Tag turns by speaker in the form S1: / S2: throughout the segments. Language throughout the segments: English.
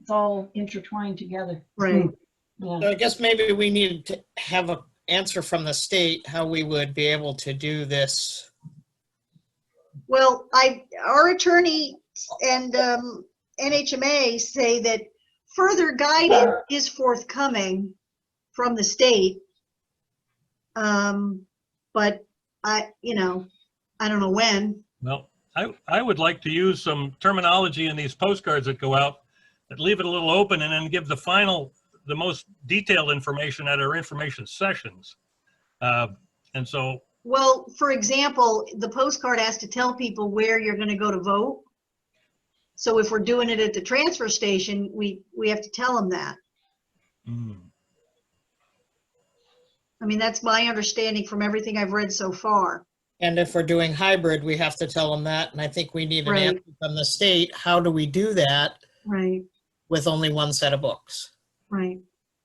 S1: it's all intertwined together.
S2: Right.
S1: Yeah.
S3: So I guess maybe we needed to have a answer from the state, how we would be able to do this.
S2: Well, I, our attorney and um, NHMA say that further guidance is forthcoming from the state. Um, But I, you know, I don't know when.
S4: Well, I, I would like to use some terminology in these postcards that go out that leave it a little open and then give the final, the most detailed information at our information sessions. Uh, And so,
S2: Well, for example, the postcard has to tell people where you're going to go to vote. So if we're doing it at the transfer station, we, we have to tell them that.
S4: mm,
S2: I mean, that's my understanding from everything I've read so far.
S3: And if we're doing hybrid, we have to tell them that, and I think we need an
S2: Right.
S3: answer from the state, how do we do that
S2: Right,
S3: with only one set of books?
S2: right,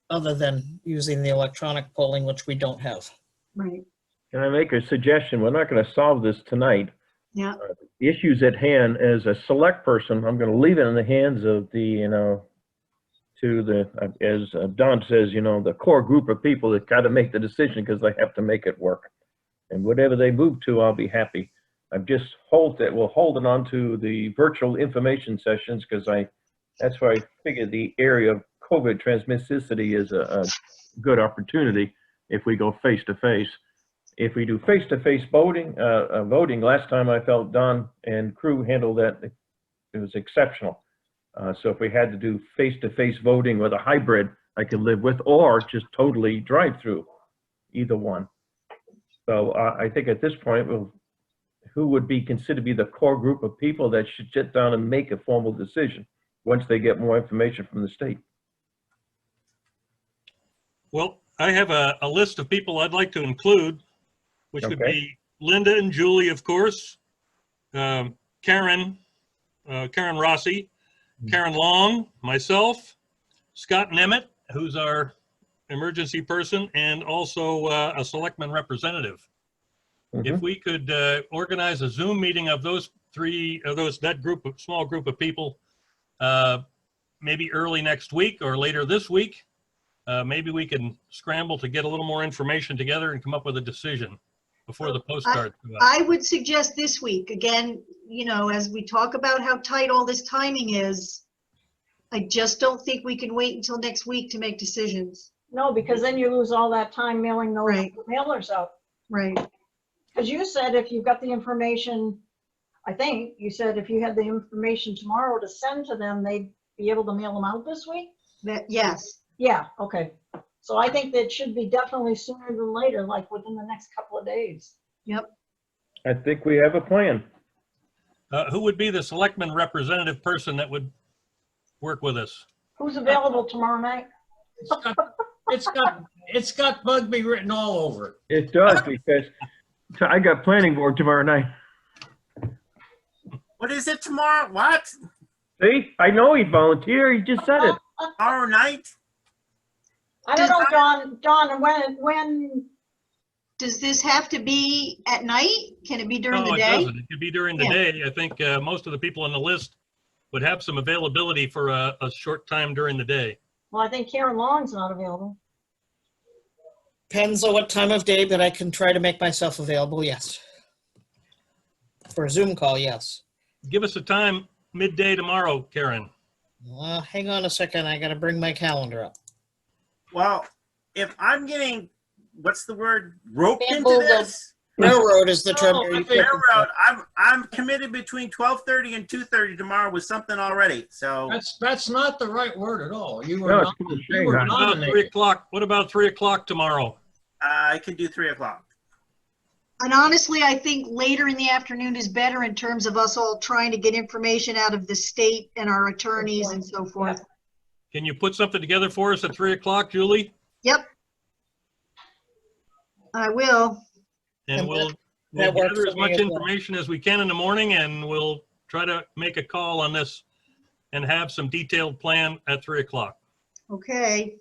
S3: Other than using the electronic polling, which we don't have.
S2: right.
S5: Can I make a suggestion? We're not going to solve this tonight. Uh,
S2: Yeah.
S5: The issues at hand, as a select person, I'm going to leave it in the hands of the, you know, to the, uh, as Don says, you know, the core group of people that got to make the decision because they have to make it work. And whatever they move to, I'll be happy. I've just hold it, we'll hold it on to the virtual information sessions because I, that's where I figure the area of COVID transmissivity is a, a good opportunity if we go face to face if we do face-to-face voting, uh, uh, voting, last time I felt Don and crew handled that, it was exceptional. Uh, so if we had to do face-to-face voting with a hybrid, I could live with, or just totally drive-through, either one. So uh, I think at this point, we'll, who would be considered to be the core group of people that should sit down and make a formal decision once they get more information from the state?
S4: well, I have a, a list of people I'd like to include, which would
S5: Okay.
S4: be Linda and Julie, of course, um, Karen, uh, Karen Rossi, Karen Long, myself, Scott Nemeth, who's our emergency person, and also uh, a selectman representative. If
S5: Mhm.
S4: we could uh, organize a Zoom meeting of those three, of those, that group of, small group of people, uh, maybe early next week or later this week, uh, maybe we can scramble to get a little more information together and come up with a decision before the postcard. go out.
S2: I would suggest this week, again, you know, as we talk about how tight all this timing is, I just don't think we can wait until next week to make decisions.
S1: No, because then you lose all that time mailing those
S2: Right.
S1: mailers out.
S2: Right,
S1: Because you said if you got the information, I think you said if you had the information tomorrow to send to them, they'd be able to mail them out this week?
S2: that, yes,
S1: Yeah, okay. So I think that should be definitely sooner than later, like within the next couple of days.
S5: I think we have a plan.
S4: Uh, Who would be the selectman representative person that would work with us?
S1: Who's available tomorrow night?
S6: It's got, it's got, it's got Bugby written all over it.
S5: It does, because I got planning board tomorrow night.
S6: What is it tomorrow? What?
S5: See, I know he volunteered. He just said it.
S6: Tomorrow night?
S1: I don't
S2: Does-
S1: know, Don, Don, when, when,
S2: does this have to be at night? Can it be during
S4: No,
S2: the
S4: Oh, it
S2: day?
S4: doesn't. It could be during the
S2: Yeah.
S4: day. I think uh, most of the people on the list would have some availability for a, a short time during the day.
S1: well, I think Karen Long's not available.
S3: Depends on what time of day, but I can try to make myself available, yes. For a Zoom call, yes.
S4: Give us a time midday tomorrow, Karen.
S3: Uh, hang on a second, I gotta bring my calendar up.
S6: Well, if I'm getting, what's the word, roped into
S3: Bamboozled.
S6: this?
S3: Railroad is the term.
S6: Oh,
S3: you're
S6: with the
S3: looking for.
S6: Railroad, I'm, I'm committed between 12:30 and 2:30 tomorrow with something already, so.
S7: That's, that's not the right word at all. You
S5: No,
S7: were
S5: it's
S7: not,
S5: kind of
S7: you
S5: shame,
S7: were
S5: huh?
S4: About Three
S7: nominated.
S4: o'clock, what about three o'clock tomorrow?
S6: uh, I could do three o'clock.
S2: And honestly, I think later in the afternoon is better in terms of us all trying to get information out of the state and our attorneys and so forth.
S4: Can you put something together for us at three o'clock, Julie?
S2: I will,
S4: And
S3: And
S4: we'll, we'll
S3: that works
S4: gather as
S3: for me
S4: much
S3: as well.
S4: information as we can in the morning and we'll try to make a call on this and have some detailed plan at three o'clock.
S2: okay.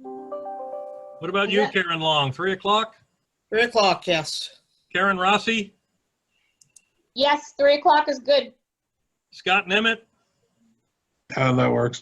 S4: What about you,
S1: Yeah.
S4: Karen Long? Three o'clock?
S3: Three o'clock, yes.
S4: Karen Rossi?
S8: Yes, three o'clock is good.
S4: Scott Nemeth?
S9: Uh, that works.